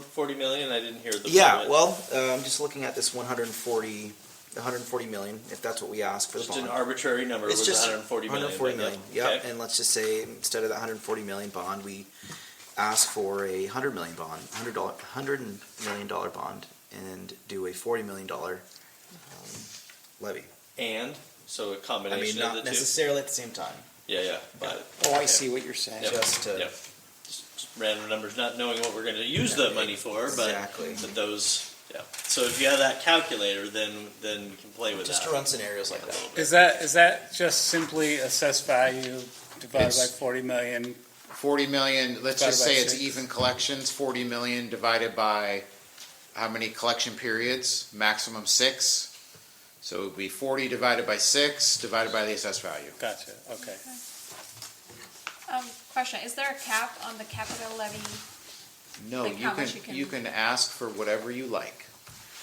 forty million? I didn't hear the. Yeah, budget. well, uh, I'm just looking at this 140, 140 million, if that's what we asked for the Just an bond. arbitrary number It's was just 140 million. 140 but million, that- yep, okay. and let's just say, instead of that 140 million bond, we ask for a 100 million bond, 100 dollar, 100 million dollar bond, and do a 40 million dollar um, levy. And so a I mean, combination not of the two. necessarily at the same time, Yeah, yeah. But Oh, I okay. see what you're saying. Yep. just uh, to, Yep. Just Random numbers, not knowing what we're going to use the money for, but Exactly. but those. Yeah. So if you have that calculator, then then you can play with just that to run scenarios a like that. little bit. Is that, is that just simply assessed value divided by It's- forty million? 40 million, let's just Divided by say it's six. even collections, 40 million divided by how many collection periods? Maximum six. So it would be 40 divided by six, divided by the assessed value. Gotcha, okay. Um, question, is there a cap on the capital levy? No, Like you how can, much you can- you can ask for whatever you like.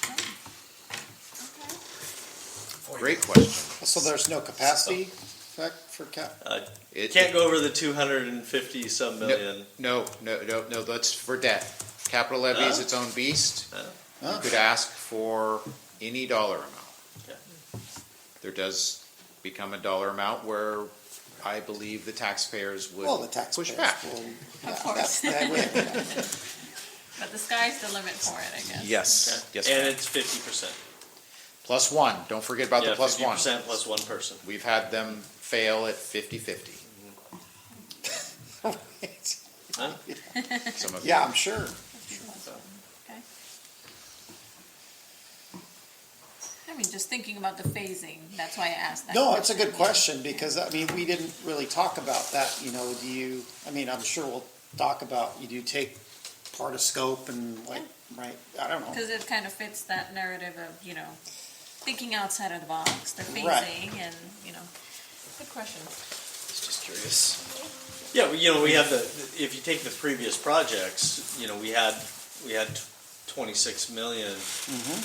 Okay. Great question. So there's no capacity effect for cap. It- Uh, Can't go over the 250 some million. No, no, no, no, that's for debt. Capital levy is Huh? its own beast. Huh? You could ask for any dollar amount. Okay. There does become a dollar amount where I believe the taxpayers Well, the would taxpayers push back. will. Of yeah, course. that- that would- But the sky's the limit for it, I guess. Okay. Yes, yes. and ma'am. it's 50 percent. Plus one, don't forget about yeah, the plus 50 one. percent plus one person. We've had them fail at fifty-fifty, some of them. Yeah, I'm sure. Okay. I mean, just thinking about the phasing, that's why I asked that. No, it's a good question because, I mean, we didn't really talk about that, you know, do you, I mean, I'm sure we'll talk about, you do take part of scope and like, right, I don't know. Because it kind of fits that narrative of, you know, thinking outside of the box, the Right. phasing and, you know, good question. Just curious. Yeah, well, you know, we have the, if you take the previous projects, you know, we had, we had twenty-six million,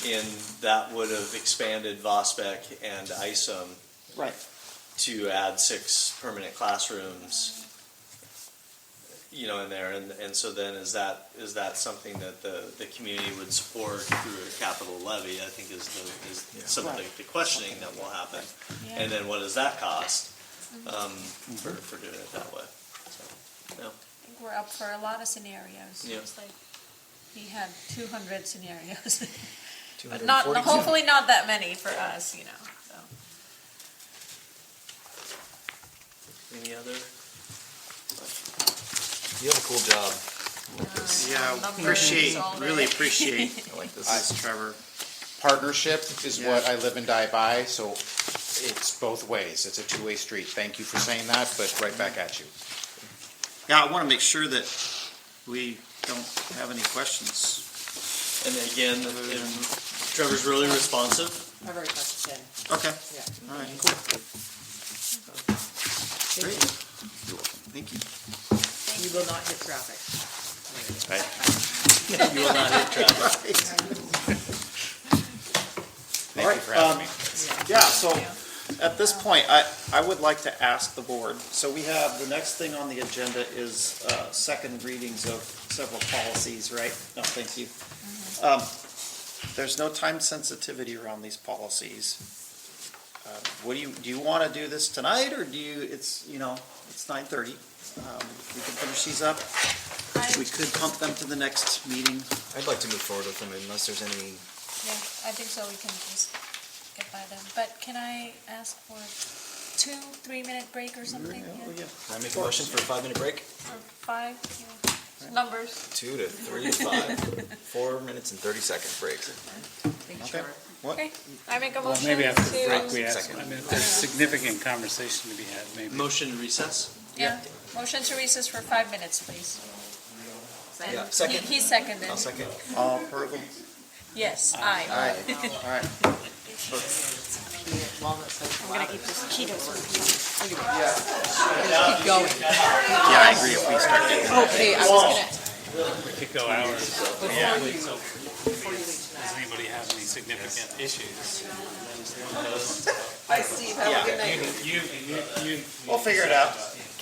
and that would have expanded Vospec and ISOM Right, to add six permanent classrooms, you know, in there, and, and so then is that, is that something that the, the community would support through a capital levy, I think is the, is some of the Right. the questioning that will happen. Yeah. And then what does that cost, um, for, for doing it that way, so. I think we're up for a lot of scenarios. Yeah. It's like, we had two hundred scenarios, but 240. not, hopefully not that many for us, you know, so. Any other? You have a cool job. Yeah, Numbers appreciate- all really day. appreciate I like this. Trevor. Partnership is what I live and die by, so it's both ways. It's a two-way street. Thank you for saying that, but right back at you. yeah, I want to make sure that we don't have any questions. And again, if Trevor's really responsive. I've already talked to Jen, Okay, yeah. all right, cool. Great. You're welcome. Thank you. You will not hit traffic. You will not hit traffic. Thank you Alright, for having um, me. Yeah, so at this point, I, I would like to ask the board, so we have, the next thing on the agenda is, uh, second readings of several policies, right? No, thank you. Um, there's no time sensitivity around these policies. Uh, What do you, do you wanna do this tonight, or do you, it's, you know, it's nine thirty, um, we can finish these up, we could pump them to the next meeting. I'd like to move forward with them unless there's any Yeah, I think so, we can just get by them, but can I ask for two, three-minute break or something? Oh, Yeah, yeah. Can I make a motion for a five-minute break? Or five, yeah, numbers. Two to three to five. Four minutes and thirty-second break. Thank you, Okay. Trevor. Okay, I make a Well, motion maybe after the break, we to, have, Second. I mean, if there's significant conversation to be had, maybe. Motion to recess? yeah, motion to recess for five minutes, please. And Yeah, he- second. He seconded, I'll second. All approval? yes, aye. Aye. All right. Walnut says I'm gonna eat this Cheetos. keep going. Yeah, I agree, if we start getting. Okay, I was gonna. We could go hours. So, Does anybody have any significant issues? Bye, Steve, have a good night. You, you, you. We'll figure it out.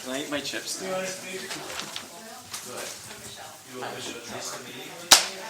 Can I eat my chips now?